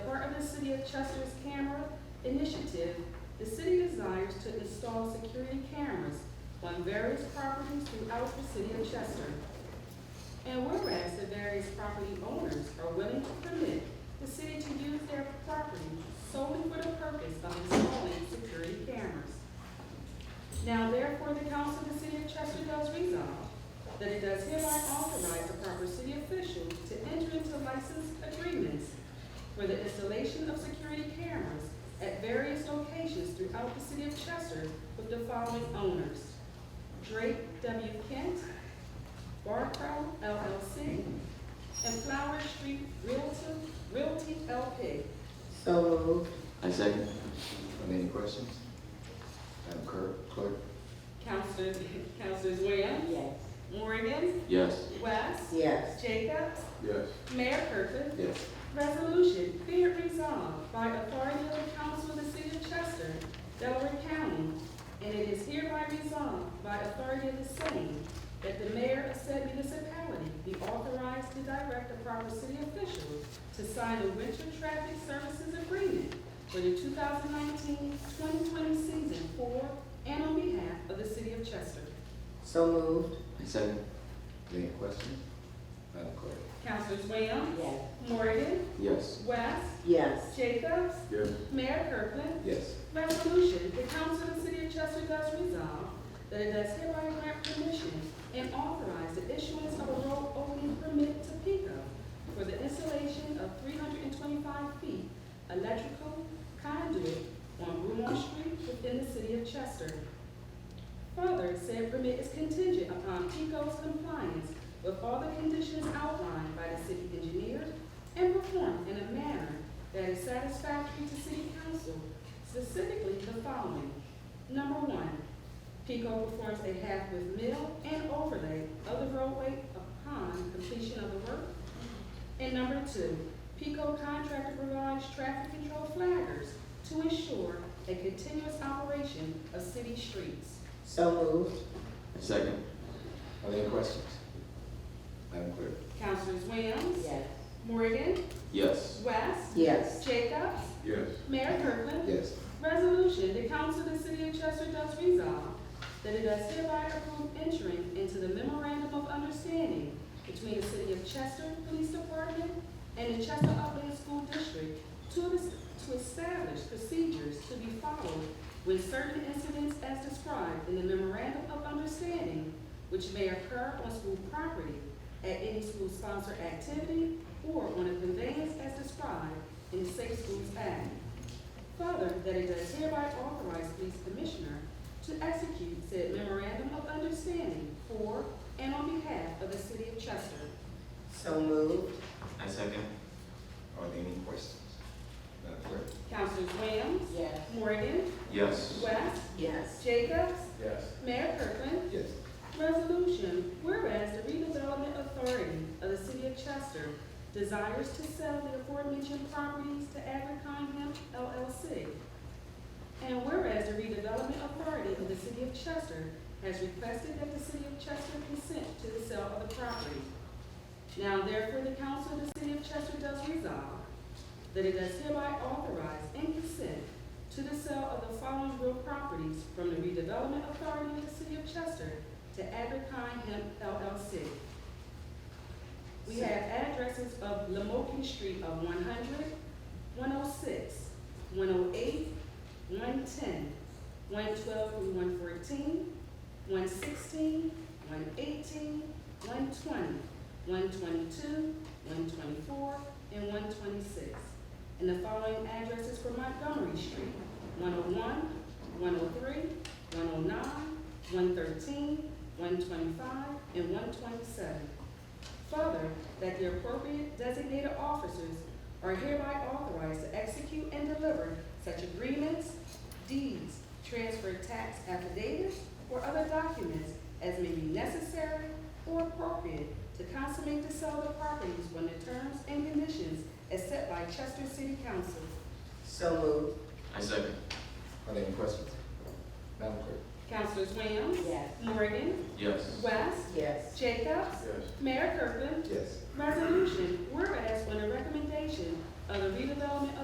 City of Chester's Camera Initiative, the city desires to install security cameras on various properties throughout the city of Chester. And whereas the various property owners are willing to permit the city to use their property solely for the purpose of installing security cameras. Now therefore, the council of the city of Chester does resolve that it does hereby authorize the proper city official to enter into license agreements for the installation of security cameras at various locations throughout the city of Chester with the following owners. Drake W. Kent, Barcrow LLC, and Flower Street Realty, Realty LP. So moved. I second. Are there any questions? Madam Clerk- Clerk? Councilors, Councilors Williams, Yes. Morgan, Yes. West, Yes. Jacobs, Yes. Mayor Kirkland, Yes. Resolution, be it resolved by authority of the council of the city of Chester, Delaware County, and it is hereby resolved by authority of the same that the mayor of said municipality be authorized to direct the proper city officials to sign a winter traffic services agreement for the 2019-2020 season for and on behalf of the city of Chester. So moved. I second. Are there any questions? Madam Clerk? Councilors Williams, Yes. Morgan, Yes. West, Yes. Jacobs, Yes. Mayor Kirkland, Yes. Resolution, the council of the city of Chester does resolve that it does hereby grant permission and authorize the issuance of a road opening permit to PICO for the installation of three hundred and twenty-five feet electrical conduit on Bruin Street within the city of Chester. Further, said permit is contingent upon PICO's compliance with all the conditions outlined by the city engineer and performed in a manner that is satisfactory to city council specifically the following. Number one, PICO performs a half with mill and overlay of the roadway upon completion of the work. And number two, PICO contractor provides traffic control flaggers to ensure a continuous operation of city streets. So moved. I second. Are there any questions? Madam Clerk? Councilors Williams, Yes. Morgan, Yes. West, Yes. Jacobs, Yes. Mayor Kirkland, Yes. Resolution, the council of the city of Chester does resolve that it does hereby approve entering into the memorandum of understanding between the city of Chester Police Department and the Chester Upland School District to es- to establish procedures to be followed when certain incidents as described in the memorandum of understanding which may occur on school property at any school-sponsored activity or on a conveyance as described in the Safe Schools Act. Further, that it does hereby authorize police commissioner to execute said memorandum of understanding for and on behalf of the city of Chester. So moved. I second. Are there any questions? Madam Clerk? Councilors Williams, Yes. Morgan, Yes. West, Yes. Jacobs, Yes. Mayor Kirkland. Yes. Resolution, whereas the redevelopment authority of the city of Chester desires to sell the aforementioned properties to Abercon LLC. And whereas the redevelopment authority of the city of Chester has requested that the city of Chester consent to the sale of the property. Now therefore, the council of the city of Chester does resolve that it does hereby authorize and consent to the sale of the following real properties from the redevelopment authority of the city of Chester to Abercon Hemp LLC. We have addresses of Lamoken Street of 100, 106, 108, 110, 112 through 114, 116, 118, 120, 122, 124, and 126. And the following addresses for Montgomery Street, 101, 103, 109, 113, 125, and 127. Further, that the appropriate designated officers are hereby authorized to execute and deliver such agreements, deeds, transfer tax affidavits, or other documents as may be necessary or appropriate to consummate the sale of the properties when the terms and conditions as set by Chester City Council. So moved. I second. Are there any questions? Madam Clerk? Councilors Williams, Yes. Morgan, Yes. West, Yes. Jacobs, Yes. Mayor Kirkland, Yes. Resolution, whereas on the recommendation of the redevelopment